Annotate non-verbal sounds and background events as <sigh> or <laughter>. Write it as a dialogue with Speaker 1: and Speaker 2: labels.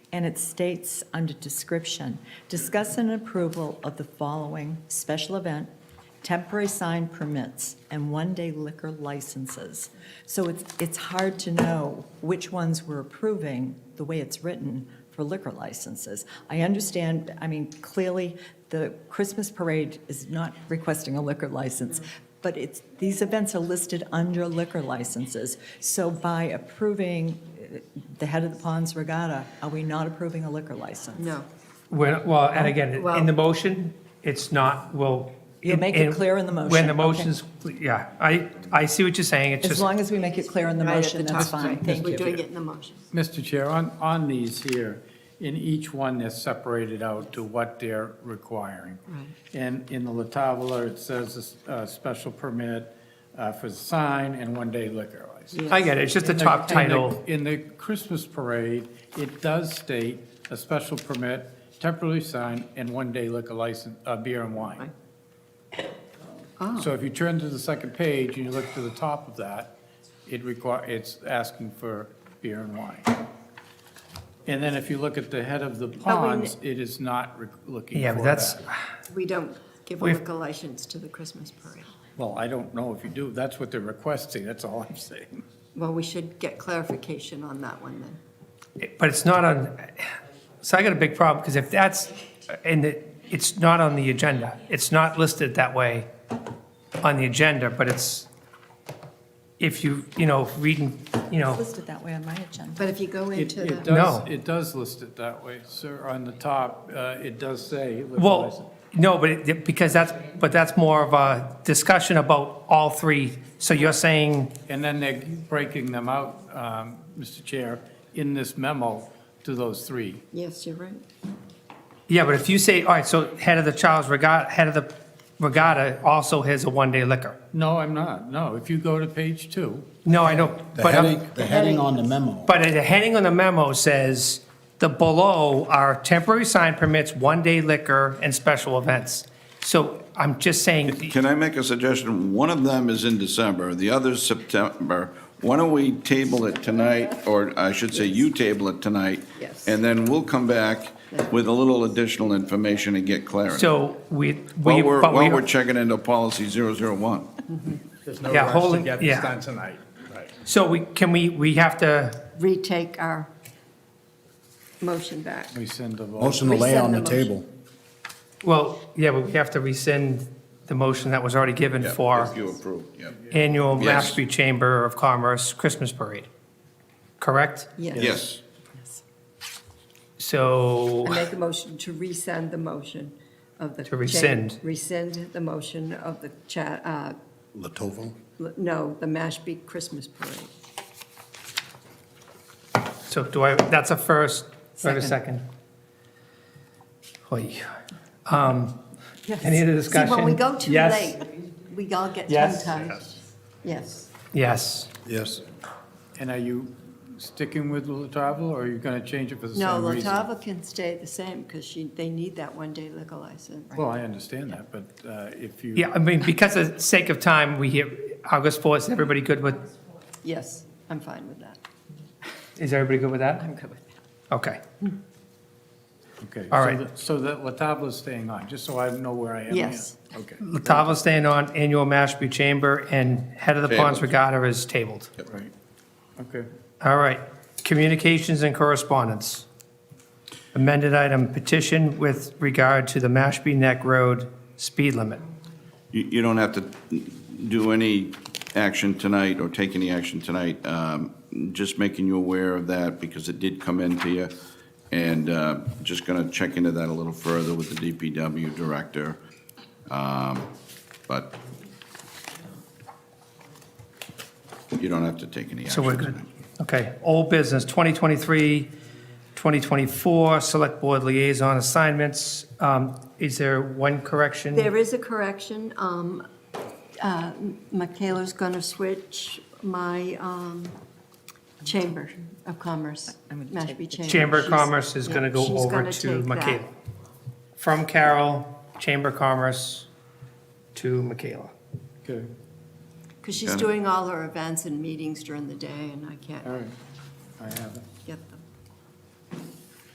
Speaker 1: and it states under description, discuss an approval of the following special event, temporary sign permits, and one-day liquor licenses. So it's, it's hard to know which ones we're approving, the way it's written, for liquor licenses. I understand, I mean, clearly, the Christmas parade is not requesting a liquor license, but it's, these events are listed under liquor licenses. So by approving uh, the Head of the Ponds Regatta, are we not approving a liquor license?
Speaker 2: No.
Speaker 3: When- Well, and again,
Speaker 2: Well-
Speaker 3: in the motion, it's not, well.
Speaker 1: You make it clear in the motion,
Speaker 3: When
Speaker 1: okay.
Speaker 3: the motion's, yeah, I, I see what you're saying, it's
Speaker 1: As
Speaker 3: just,
Speaker 1: long as we make it clear in the
Speaker 2: Right at
Speaker 1: motion,
Speaker 2: top,
Speaker 1: that's fine,
Speaker 2: right,
Speaker 1: thank
Speaker 2: We're doing
Speaker 1: you.
Speaker 2: it in the motion.
Speaker 4: Mr. Chair, on, on these here, in each one, they're separated out to what they're requiring.
Speaker 2: Right.
Speaker 4: And in the Latavola, it says a, special permit uh, for the sign and one-day liquor license.
Speaker 3: I get it, it's just the
Speaker 4: In the-
Speaker 3: top
Speaker 4: in the-
Speaker 3: title.
Speaker 4: In the Christmas parade, it does state a special permit, temporary sign, and one-day liquor license, uh, beer and wine. So if you turn to the second page and you look to the top of that, it require, it's asking for beer and wine. And then if you look at the head of the ponds, it is not re- looking
Speaker 3: yeah, but
Speaker 4: for
Speaker 3: that's,
Speaker 4: that.
Speaker 2: We don't give a
Speaker 3: We've-
Speaker 2: liquor license to the Christmas parade.
Speaker 4: Well, I don't know if you do, that's what they're requesting, that's all I'm <laughs> saying.
Speaker 2: Well, we should get clarification on that one then.
Speaker 3: but it's not on, so I got a big problem, because if that's, and it, it's not on the agenda, it's not listed that way on the agenda, but it's, if you, you know, reading, you know.
Speaker 1: It's listed that way on my agenda.
Speaker 2: But if you go
Speaker 4: It,
Speaker 2: into
Speaker 4: it
Speaker 2: the,
Speaker 4: does,
Speaker 3: No.
Speaker 4: it does list it that way, sir, on the top, uh, it does say liquor license.
Speaker 3: Well, no, but it, because that's, but that's more of a discussion about all three. So you're saying,
Speaker 4: And then they're breaking them out, um, Mr. Chair, in this memo to those three.
Speaker 2: yes, you're right.
Speaker 3: yeah, but if you say, all right, so head of the Charles Regatta, head of the regatta also has a one-day liquor.
Speaker 4: No, I'm not, no, if you go to page two,
Speaker 3: No, I know,
Speaker 5: The
Speaker 3: but, I'm-
Speaker 5: heading, um, the heading on the memo.
Speaker 3: but the heading on the memo says, the below are temporary sign permits, one-day liquor, and special events. So I'm just saying,
Speaker 6: Can I make a suggestion? One of them is in December, the other's September. Why don't we table it tonight, or I should say you table it tonight?
Speaker 2: Yes.
Speaker 6: And then we'll come back with a little additional information and get clarity.
Speaker 3: so we, we,
Speaker 6: While we're,
Speaker 3: but
Speaker 6: while we're
Speaker 3: we,
Speaker 6: checking into policy 001.
Speaker 7: There's no
Speaker 3: Yeah,
Speaker 7: rush to
Speaker 3: holding-
Speaker 7: get this
Speaker 3: yeah.
Speaker 7: done tonight. Right.
Speaker 3: so we, can we, we have to.
Speaker 2: Retake our motion back.
Speaker 4: we send the vote.
Speaker 5: Motion to lay
Speaker 2: Resend
Speaker 5: on
Speaker 2: the
Speaker 5: the table.
Speaker 3: Well, yeah, but we have to rescind the motion that was already given
Speaker 6: Yeah,
Speaker 3: for
Speaker 6: If you approve, yeah.
Speaker 3: annual
Speaker 6: Yes.
Speaker 3: Mashpee Chamber of Commerce Christmas Parade, correct?
Speaker 2: Yes.
Speaker 6: Yes,
Speaker 3: So,
Speaker 2: I make a motion to resend the motion of the.
Speaker 3: To rescind.
Speaker 2: Rescind the motion of the cha, uh,
Speaker 5: Latovo?
Speaker 2: l- no, the Mashpee Christmas parade.
Speaker 3: so do I, that's a first, do I have a second? Oy. Um, Any other
Speaker 2: See, when we
Speaker 3: discussion?
Speaker 2: go too late,
Speaker 3: Yes.
Speaker 2: we all get
Speaker 3: Yes.
Speaker 2: tongue-tied. Yes.
Speaker 3: Yes.
Speaker 5: Yes.
Speaker 4: And are you sticking with La Travel, or are you going to change it for the
Speaker 2: No,
Speaker 4: same reason?
Speaker 2: Latava can stay the same because she, they need that one-day liquor license.
Speaker 4: Well, I understand that, but uh, if you.
Speaker 3: Yeah, I mean, because of sake of time, we hear August 4th, is everybody good with,
Speaker 2: Yes, I'm fine with that.
Speaker 3: is everybody good with that?
Speaker 1: I'm good with that.
Speaker 3: Okay.
Speaker 4: Okay,
Speaker 3: All
Speaker 4: so
Speaker 3: right.
Speaker 4: that- So that La Travel's staying on, just so I know where I am. here.
Speaker 2: Yes.
Speaker 4: Okay,
Speaker 3: Latava staying on, annual Mashpee Chamber, and Head of the Ponds
Speaker 6: Tabled.
Speaker 3: Regatta is tabled.
Speaker 4: right, okay.
Speaker 3: All right, communications and correspondence. Amended item petition with regard to the Mashpee Neck Road speed limit.
Speaker 6: you, you don't have to do any action tonight or take any action tonight. Um, Just making you aware of that because it did come into you. And uh, just going to check into that a little further with the DPW director. Um, But you don't have to take any action.
Speaker 3: So we're good.
Speaker 6: tonight.
Speaker 3: Okay, old business, 2023, 2024, Select Board Liaison Assignments. Um, Is there one correction?
Speaker 2: There is a correction. um, uh, Michaela's going to switch my um, Chamber of Commerce,
Speaker 1: I'm gonna take
Speaker 2: Mashpee
Speaker 1: the
Speaker 2: Chamber.
Speaker 3: Chamber of
Speaker 2: She's-
Speaker 3: Commerce is going to
Speaker 2: yeah,
Speaker 3: go
Speaker 2: she's
Speaker 3: over
Speaker 2: gonna
Speaker 3: to
Speaker 2: take that.
Speaker 3: Michaela. From Carol, Chamber of Commerce to Michaela.
Speaker 4: Okay,
Speaker 2: Because she's doing all her events and meetings during the day, and I can't.
Speaker 4: all right, I have it.